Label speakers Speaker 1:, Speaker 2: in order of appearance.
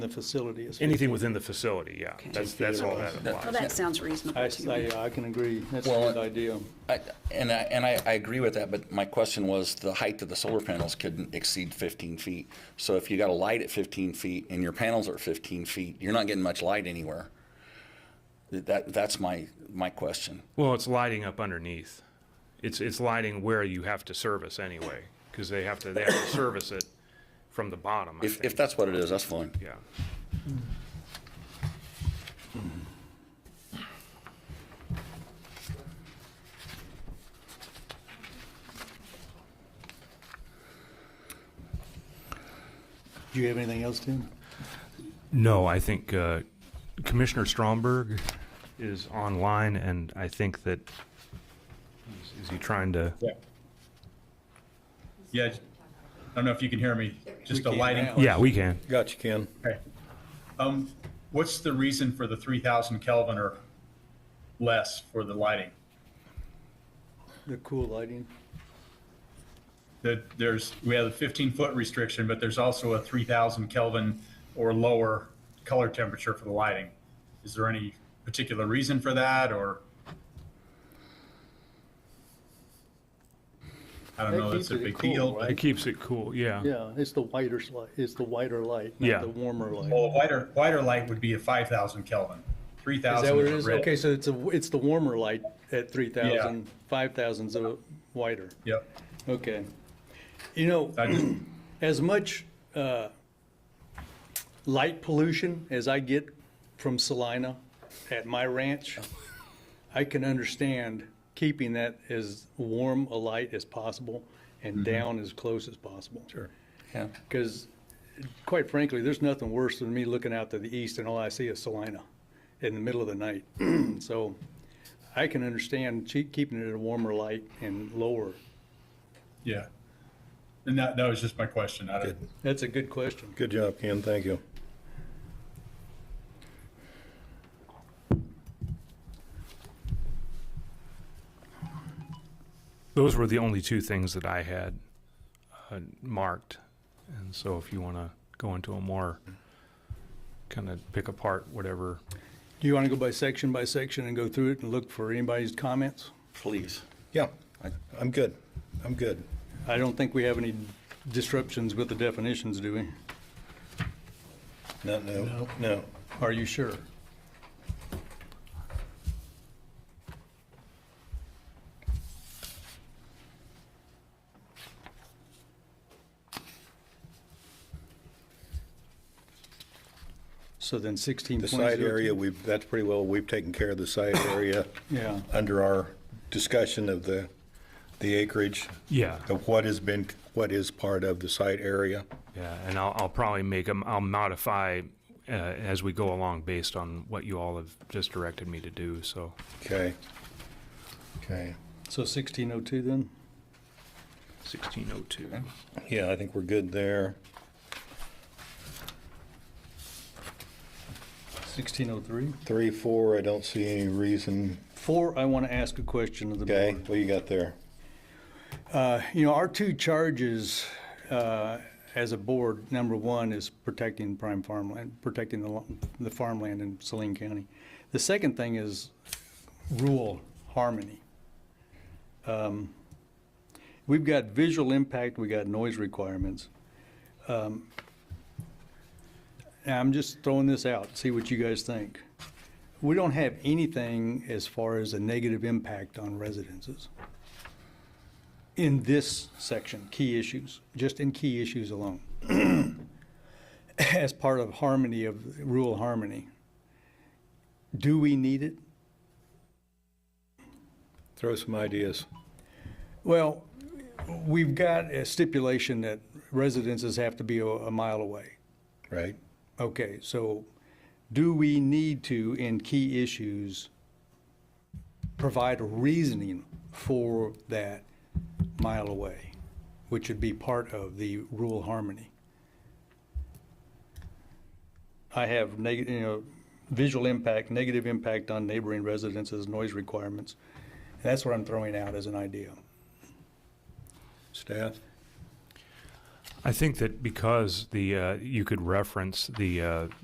Speaker 1: the facility is.
Speaker 2: Anything within the facility, yeah. That's, that's all that
Speaker 3: Well,
Speaker 2: applies.
Speaker 3: that sounds
Speaker 1: I,
Speaker 3: reasonable to me.
Speaker 1: I, I can agree. That's a
Speaker 4: Well,
Speaker 1: good idea.
Speaker 4: I- And I, and I, I agree with that, but my question was, the height of the solar panels couldn't exceed 15 feet. So if you got a light at 15 feet and your panels are 15 feet, you're not getting much light anywhere. That, that's my, my question.
Speaker 2: Well, it's lighting up underneath. It's, it's lighting where you have to service anyway, because they have to, they have to service it from the bottom, I
Speaker 4: If, if
Speaker 2: think.
Speaker 4: that's what it is, that's fine.
Speaker 2: Yeah.
Speaker 1: Do you have anything else, Tim?
Speaker 2: No, I think uh, Commissioner Stromberg is online, and I think that, is- is he trying to?
Speaker 5: Yeah. Yeah, j- I don't know if you can hear me, just a lighting.
Speaker 2: Yeah, we can.
Speaker 1: Got you, Ken.
Speaker 5: Okay. Um, what's the reason for the three thousand Kelvin or less for the lighting?
Speaker 1: The cool lighting.
Speaker 5: That there's, we have a fifteen-foot restriction, but there's also a three thousand Kelvin or lower color temperature for the lighting. Is there any particular reason for that, or? I don't
Speaker 1: That
Speaker 5: know,
Speaker 1: keeps
Speaker 5: that's a
Speaker 1: it
Speaker 5: big
Speaker 1: cool,
Speaker 5: deal, but
Speaker 1: right?
Speaker 2: It keeps it cool, yeah.
Speaker 1: Yeah, it's the whiter light, it's the whiter light,
Speaker 2: Yeah.
Speaker 1: not the warmer light.
Speaker 5: Well, a whiter, whiter light would be a five thousand Kelvin, three
Speaker 1: Is
Speaker 5: thousand.
Speaker 1: that what it is? Okay, so it's a, it's the warmer light at 3,000,
Speaker 5: Yeah.
Speaker 1: 5,000's a whiter.
Speaker 5: Yep.
Speaker 1: Okay. You know,
Speaker 5: I just-
Speaker 1: as much uh, light pollution as I get from Salina at my ranch, I can understand keeping that as warm a light as possible
Speaker 5: Mm-hmm.
Speaker 1: and down as close as possible. Sure.
Speaker 4: Yeah.
Speaker 1: Because quite frankly, there's nothing worse than me looking out to the east and all I see is Salina in the middle of the night. So I can understand che- keeping it at a warmer light and lower.
Speaker 5: Yeah. And that, that was just my question. I don't,
Speaker 1: That's a good question.
Speaker 6: Good job, Ken, thank you.
Speaker 2: Those were the only two things that I had uh, marked. And so if you want to go into a more, kind of pick apart whatever.
Speaker 1: Do you want to go by section by section and go through it and look for anybody's comments?
Speaker 4: Please.
Speaker 6: Yeah, I'm good, I'm good.
Speaker 1: I don't think we have any disruptions with the definitions, do we?
Speaker 6: No, no, no.
Speaker 1: Are you sure? So then sixteen
Speaker 6: The side area, we've, that's pretty well, we've taken care of the side area
Speaker 1: Yeah,
Speaker 6: under our discussion of the, the acreage,
Speaker 2: Yeah.
Speaker 6: of what has been, what is part of the site area.
Speaker 2: Yeah, and I'll, I'll probably make them, I'll modify uh, as we go along based on what you all have just directed me to do, so.
Speaker 6: Okay. Okay.
Speaker 1: so sixteen oh two then?
Speaker 2: 1602.
Speaker 6: Yeah, I think we're good there.
Speaker 1: Sixteen oh three?
Speaker 6: Three, four, I don't see any reason.
Speaker 1: Four, I want to ask a question of the board.
Speaker 6: Okay, what you got there?
Speaker 1: You know, our two charges uh, as a board, number one is protecting prime farmland, protecting the lo- the farmland in Saline County. The second thing is rural harmony. Um, We've got visual impact, we got noise requirements. Um, And I'm just throwing this out, see what you guys think. We don't have anything as far as a negative impact on residences in this section, key issues, just in key issues alone, as part of harmony of rural harmony. Do we need it?
Speaker 6: Throw some ideas.
Speaker 1: Well, we've got a stipulation that residences have to be a, a mile away.
Speaker 6: Right?
Speaker 1: Okay, so do we need to, in key issues, provide reasoning for that mile away, which would be part of the rural harmony? I have negative, you know, visual impact, negative impact on neighboring residences, noise requirements. That's what I'm throwing out as an idea.
Speaker 6: Staff?
Speaker 2: I think that because the, uh, you could reference the, uh,